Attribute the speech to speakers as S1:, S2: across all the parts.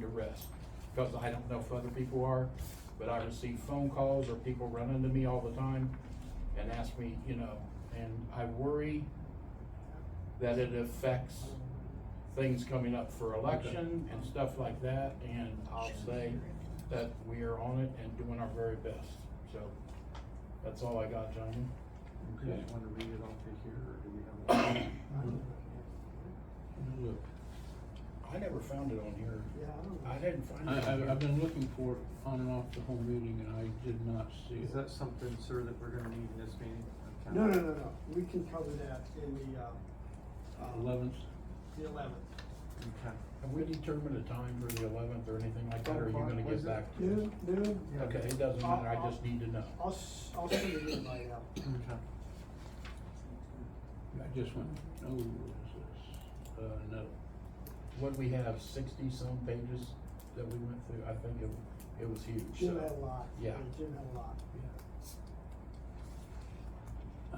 S1: to rest, because I don't know if other people are, but I receive phone calls or people run into me all the time and ask me, you know, and I worry that it affects things coming up for election and stuff like that, and I'll say that we are on it and doing our very best, so that's all I got, gentlemen.
S2: Do you want to read it off of here, or do we have? a-
S3: Look,
S1: I never found it on here.
S4: Yeah, I don't know.
S1: I didn't find
S3: I,
S1: it on
S3: I've, I've
S1: here.
S3: been looking for it on and off the whole meeting and I did not see
S2: Is
S3: it.
S2: that something, sir, that we're gonna need in this meeting? Okay.
S4: No, no, no, no, we can cover that in the, uh, uh,
S3: Eleventh,
S4: The eleventh.
S2: Okay.
S1: Have we determined a time for the eleventh or anything like that, or are you gonna get
S2: Was it-
S1: back to us?
S4: Noon, noon,
S2: Yeah.
S1: Okay, it doesn't matter, I just need to know.
S4: I'll, s- I'll send an invite out.
S2: Okay.
S3: I just went, oh, what is this? Uh, no,
S1: What we have, sixty-some pages that we went through, I think it, it was huge,
S4: Jim had a
S1: so.
S4: lot.
S1: Yeah.
S4: Jim had a lot.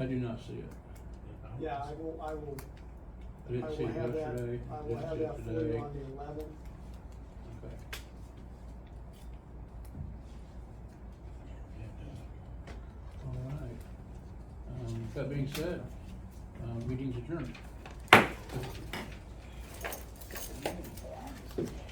S3: I do not see it.
S4: Yeah, I will, I will,
S3: I
S4: I
S3: didn't see
S4: will
S3: it
S4: have that,
S3: yesterday,
S4: I will
S3: didn't
S4: have
S3: see
S4: that
S3: it
S4: for you
S3: today.
S4: on the eleventh.
S3: Okay. All right. Um, with that being said, uh, meeting's adjourned.